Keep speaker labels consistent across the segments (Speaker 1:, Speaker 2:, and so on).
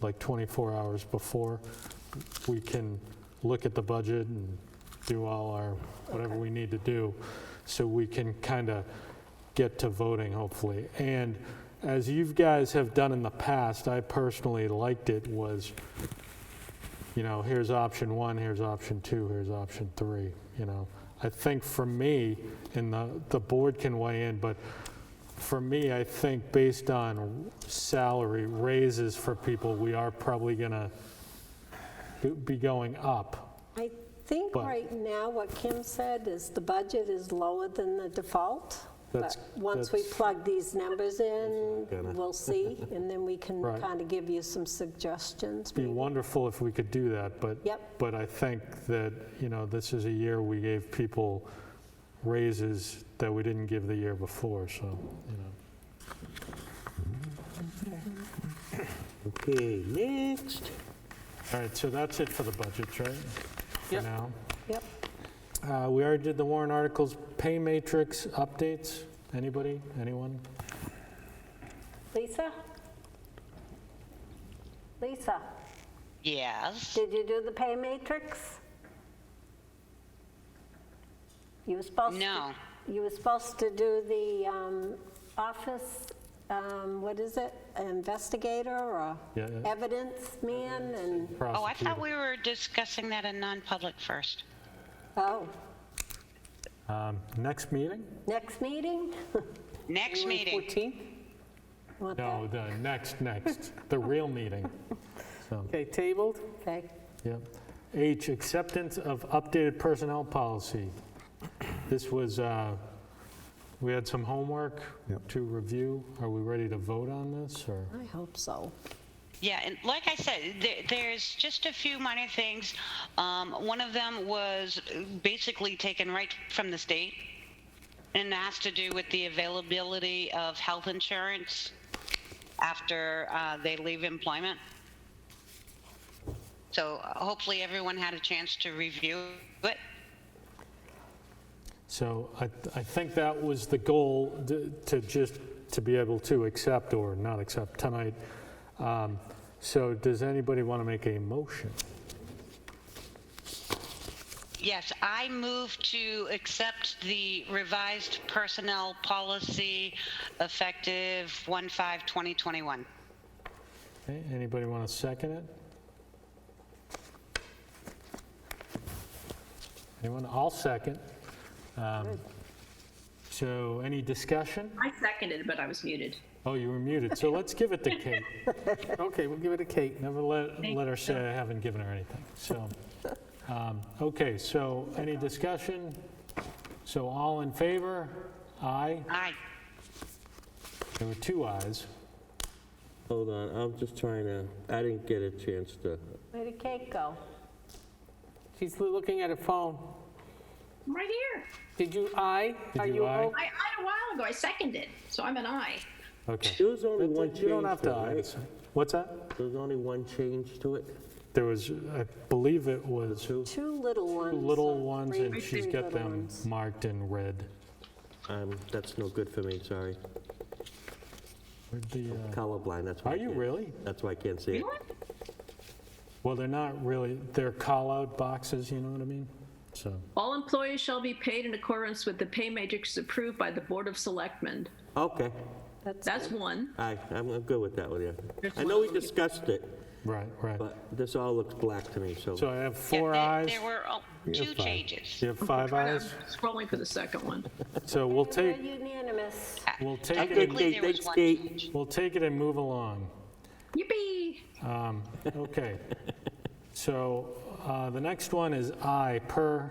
Speaker 1: like 24 hours before, we can look at the budget and do all our, whatever
Speaker 2: Okay.
Speaker 1: we need to do, so we can kind of get to voting, hopefully. And as you guys have done in the past, I personally liked it was, you know, here's option one, here's option two, here's option three, you know. I think for me, and the, the board can weigh in, but for me, I think based on salary raises for people, we are probably gonna be going up.
Speaker 2: I think
Speaker 1: But-
Speaker 2: right now, what Kim said is the budget is lower than the default. But
Speaker 1: That's-
Speaker 2: once we
Speaker 1: that's-
Speaker 2: plug these numbers in,
Speaker 3: Gonna-
Speaker 2: we'll see, and then we can
Speaker 1: Right.
Speaker 2: kind of give you some suggestions.
Speaker 1: Be
Speaker 2: maybe.
Speaker 1: wonderful if we could do that, but.
Speaker 2: Yep.
Speaker 1: But I think that, you know, this is a year we gave people raises that we didn't give the year before, so, you know.
Speaker 3: Okay, next.
Speaker 1: All right, so that's it for the budgets, right? For
Speaker 4: Yep.
Speaker 1: now.
Speaker 2: Yep.
Speaker 1: Uh, We already did the Warren articles, pay matrix updates. Anybody, anyone?
Speaker 2: Lisa? Lisa,
Speaker 5: Yes.
Speaker 2: did you do the pay matrix? You were supposed to.
Speaker 5: No.
Speaker 2: You were supposed to do the um, office, um, what is it, investigator or
Speaker 1: Yeah, yeah.
Speaker 2: evidence man and,
Speaker 5: Oh, I
Speaker 1: Prosecutor.
Speaker 5: thought we were discussing that in non-public first.
Speaker 2: oh,
Speaker 1: Um, Next meeting?
Speaker 2: next meeting?
Speaker 5: Next meeting.
Speaker 4: 14?
Speaker 2: Want that?
Speaker 1: No, the next, next, the real meeting. So,
Speaker 4: Okay, tabled.
Speaker 2: Okay,
Speaker 1: yep. H, acceptance of updated personnel policy. This was, uh, we had some homework
Speaker 3: Yep.
Speaker 1: to review. Are we ready to vote on this, or?
Speaker 2: I hope so.
Speaker 5: Yeah, and like I said, there, there's just a few minor things. Um, one of them was basically taken right from the state and has to do with the availability of health insurance after uh, they leave employment. So uh, hopefully everyone had a chance to review it.
Speaker 1: So I, I think that was the goal, to to just, to be able to accept or not accept tonight. Um, So does anybody want to make a motion?
Speaker 5: Yes, I move to accept the revised personnel policy effective 1/5/2021.
Speaker 1: Okay, Anybody want to second it? Anyone? I'll second. Um, So any discussion?
Speaker 6: I seconded, but I was muted.
Speaker 1: Oh, you were muted, so let's give it to Kate.
Speaker 4: Okay, we'll give it a Kate.
Speaker 1: Never let, let her say I haven't given her anything, so. um, Okay, so any discussion? So all in favor? Aye.
Speaker 5: Aye.
Speaker 1: There were two ayes.
Speaker 3: Hold on, I'm just trying to, I didn't get a chance to,
Speaker 2: Where did Kate go?
Speaker 4: She's looking at her phone.
Speaker 6: I'm right here.
Speaker 4: Did you I?
Speaker 1: Did
Speaker 4: Are
Speaker 1: you
Speaker 4: you
Speaker 1: aye?
Speaker 4: o-
Speaker 6: I, I a while ago, I seconded, so I'm an I.
Speaker 1: Okay.
Speaker 3: there was only one change
Speaker 1: You
Speaker 3: to it,
Speaker 1: don't have to aye.
Speaker 3: right?
Speaker 1: What's that?
Speaker 3: There was only one change to it?
Speaker 1: There was, I believe it was.
Speaker 2: Two little ones.
Speaker 1: little
Speaker 2: or
Speaker 1: ones,
Speaker 2: three-
Speaker 1: and she's
Speaker 2: three
Speaker 1: got
Speaker 2: little
Speaker 1: them
Speaker 2: ones.
Speaker 1: marked in red.
Speaker 3: Um, That's no good for me, sorry.
Speaker 1: Where'd the, uh,
Speaker 3: Colorblind, that's why. I
Speaker 1: Are you
Speaker 3: can't-
Speaker 1: really?
Speaker 3: That's why I can't see it.
Speaker 1: Well, they're not really, they're call-out boxes, you know what I mean? So,
Speaker 6: All employees shall be paid in accordance with the pay matrix approved by the Board of Selectmen.
Speaker 3: Okay,
Speaker 6: That's one.
Speaker 3: aye, I'm I'm good with that one, yeah. I know we discussed it,
Speaker 1: right, right.
Speaker 3: but this all looks black to me, so.
Speaker 1: So I have four
Speaker 5: Yeah,
Speaker 1: eyes.
Speaker 5: there- There were oh,
Speaker 1: You have
Speaker 5: two
Speaker 1: five.
Speaker 5: changes.
Speaker 1: You have five eyes,
Speaker 6: Scrolling for the second one.
Speaker 1: so we'll
Speaker 2: They're
Speaker 1: take,
Speaker 2: unanimous.
Speaker 5: Ah.
Speaker 1: we'll
Speaker 3: I'm
Speaker 1: take it, and-
Speaker 3: good,
Speaker 5: Technically,
Speaker 3: Kate,
Speaker 5: there was
Speaker 3: thanks,
Speaker 5: one
Speaker 3: Kate.
Speaker 5: change.
Speaker 1: we'll take it and move along.
Speaker 6: Yippee!
Speaker 1: Um, Okay. So uh, the next one is I, per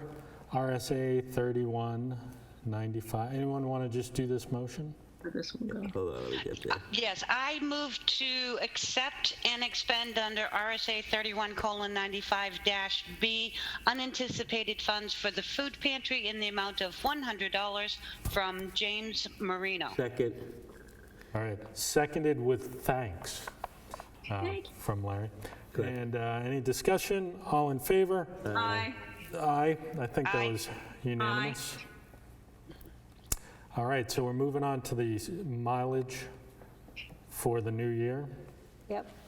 Speaker 1: RSA 3195. Anyone want to just do this motion?
Speaker 6: Where'd this one go?
Speaker 3: Hold on, let me get there.
Speaker 5: Yes, I move to accept and expend under RSA 31:95-B unanticipated funds for the food pantry in the amount of $100 from James Marino.
Speaker 3: Second,
Speaker 1: All right, seconded with thanks uh,
Speaker 6: Thank you.
Speaker 1: from Larry.
Speaker 3: Good.
Speaker 1: And uh, any discussion? All in favor?
Speaker 6: I,
Speaker 1: Aye. I think that
Speaker 5: Aye.
Speaker 1: was unanimous. All right, so we're moving on to the s- mileage for the new year.
Speaker 2: Yep,